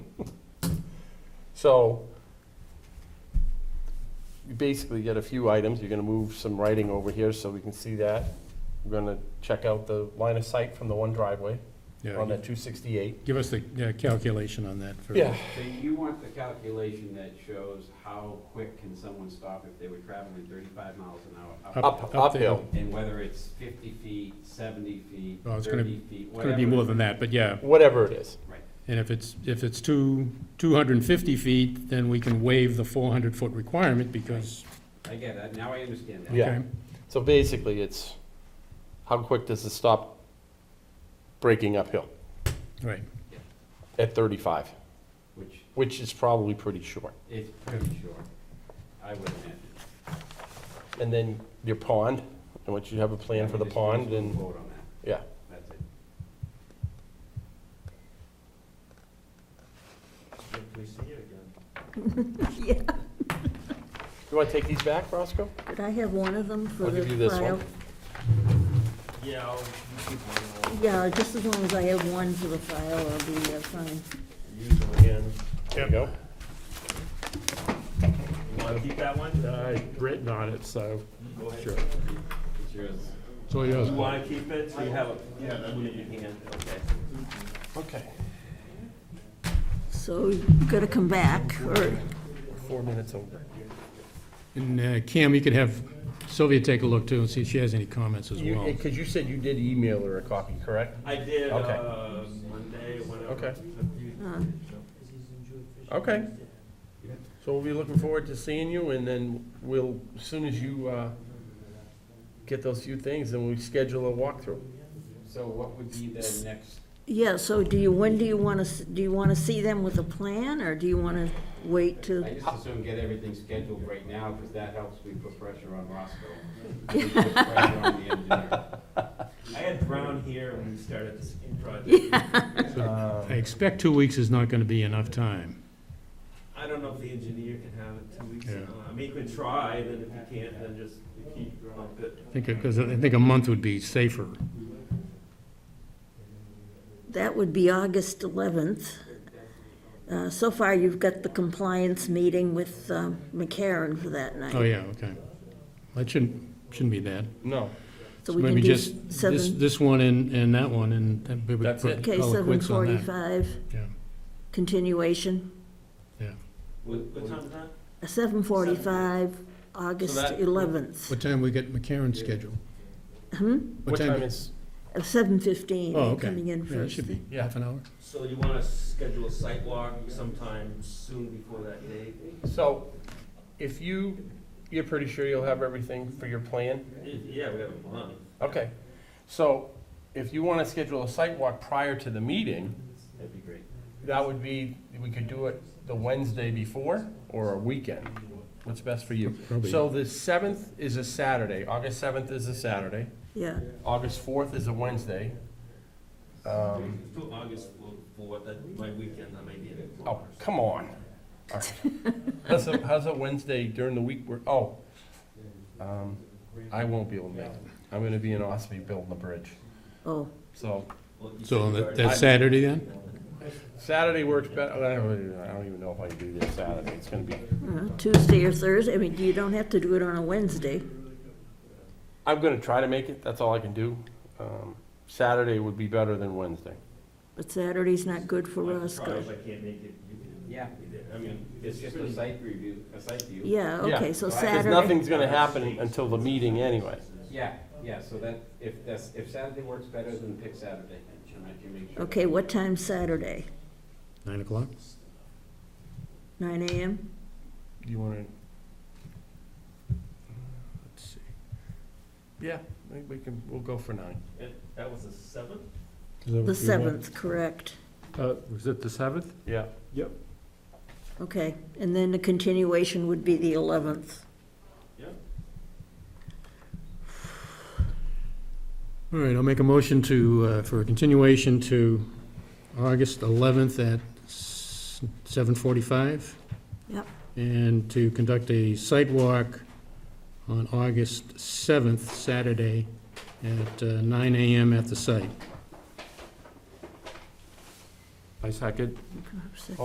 So you basically get a few items. You're gonna move some writing over here so we can see that. We're gonna check out the line of sight from the one driveway Yeah, on that two sixty-eight. Give us the yeah, calculation on that for. Yeah, So you want the calculation that shows how quick can someone stop if they were traveling thirty-five miles an hour? Uh, up, up- up the uphill. hill. And whether it's fifty feet, seventy feet, Well, it's gonna- thirty feet, It's whatever. gonna be more than that, but yeah, Whatever it is. Right, and if it's, if it's two, two hundred and fifty feet, then we can waive the four hundred foot requirement because, I get that, now I understand that. Yeah. okay, So basically, it's how quick does it stop breaking uphill right. at thirty-five, Which which is probably pretty short. is pretty short, I would imagine. And then your pond, and once you have a plan for the Just- just pond, and, Vote on that, yeah. that's it. we see it again. Yeah, You wanna take these back, Roscoe? did I have one of them for I'll the give you this file? one. Yeah, I'll, you keep one, Yeah, just as long as I have one for the file, I'll be uh, fine. I'll use them again. There you go. You wanna keep that one? Uh, written on it, so, Go ahead. sure. It's yours. It's all yours. You wanna keep it, so you have it? Yeah, that'd Put it in your hand, okay. Okay. So you gotta come back, or, Four minutes over. And uh, Cam, you could have Sylvia take a look too and see if she has any comments as well. Because you said you did email her a copy, correct? I did, Okay. uh, Monday, whatever. Okay. uh, Okay. So we'll be looking forward to seeing you, and then we'll, as soon as you uh, get those few things, then we schedule a walkthrough. So what would be the next, yeah, so do you, when do you wanna, s- do you wanna see them with a plan, or do you wanna wait to? I just assume get everything scheduled right now, because that helps we put pressure on Roscoe. We put pressure on the engineer. I had Brown here when we started this project. Um, I expect two weeks is not gonna be enough time. I don't know if the engineer can have it two weeks, Yeah. uh, I mean, you could try, then if you can't, then just keep up it. I think, because I think a month would be safer. That would be August eleventh. Uh, so far, you've got the compliance meeting with, um, McCarran for that Oh, night, yeah, okay. That shouldn't, shouldn't be bad. No. so we can Maybe do just seven. this, this one and, and that one, and then we would That's it. put- Okay, call it seven quits on that. forty-five, Yeah. continuation, What, what time is that? seven forty-five, August that- eleventh, What time we get McCarron's schedule? hmm, What time is, seven fifteen, Oh, okay. coming in Yeah, it first. should be Yeah. half an hour. So you wanna schedule a site walk sometime soon before that date? so if you, you're pretty sure you'll have everything for your plan? Yeah, we have a month. Okay. So if you want to schedule a site walk prior to the meeting, That'd be great. that would be, we could do it the Wednesday before or a weekend. What's best for you? Probably. So the seventh is a Saturday, August seventh is a Saturday, Yeah, August fourth is a Wednesday. Um, Till August for, for what, that, my weekend, I might need it. oh, come on. All right. How's a, how's a Wednesday during the week, work? oh, um, I won't be able to make it. I'm gonna be in Ospey building a bridge, oh, so Well, you So said you that- already- that's Saturday then? Saturday works better, I don't really- I don't even know if I can do this Saturday, it's gonna be, uh, Tuesday or Thursday, I mean, you don't have to do it on a Wednesday. I'm gonna try to make it, that's all I can do. Um, Saturday would be better than Wednesday. But Saturday's not good for I can try, Roscoe. If I can't make it, you can. Yeah. be there. I mean, It's just a site review, a site view. Yeah, Yeah, okay, so right, Because there's Saturday, nothing's gonna happen until the meeting anyway. Yeah, yeah, so that, if that's, if Saturday works better, then pick Saturday, and I can make sure. okay, what time Saturday? Nine o'clock? Nine AM? Do you wanna? Let's see. Yeah, I think we can, we'll go for nine. And that was the seventh? The seventh, correct, Uh, was it the seventh? Yeah. okay, and then the continuation would be the eleventh. All right, I'll make a motion to, uh, for a continuation to August eleventh at seven forty-five. Yep. And to conduct a site walk on August seventh, Saturday, at uh, nine AM at the site. I second.